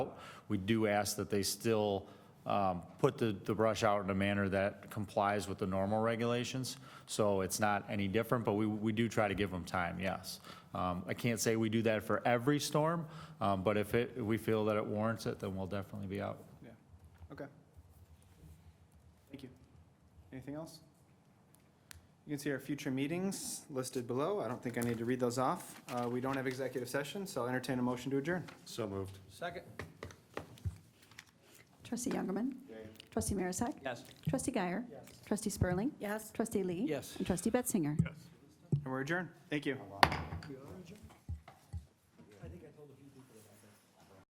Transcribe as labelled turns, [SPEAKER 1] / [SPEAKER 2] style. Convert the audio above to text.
[SPEAKER 1] We do ask that they still um, put the the brush out in a manner that complies with the normal regulations. So it's not any different, but we we do try to give them time, yes. Um, I can't say we do that for every storm, um, but if it, if we feel that it warrants it, then we'll definitely be out.
[SPEAKER 2] Yeah, okay. Thank you. Anything else? You can see our future meetings listed below. I don't think I need to read those off. Uh, We don't have executive session, so I'll entertain a motion to adjourn.
[SPEAKER 3] So moved.
[SPEAKER 2] Second.
[SPEAKER 4] Trustee Youngerman. Trustee Marisak.
[SPEAKER 2] Yes.
[SPEAKER 4] Trustee Guyer.
[SPEAKER 2] Yes.
[SPEAKER 4] Trustee Spurling.
[SPEAKER 5] Yes.
[SPEAKER 4] Trustee Lee.
[SPEAKER 2] Yes.
[SPEAKER 4] And Trustee Betzinger.
[SPEAKER 2] And we're adjourned. Thank you.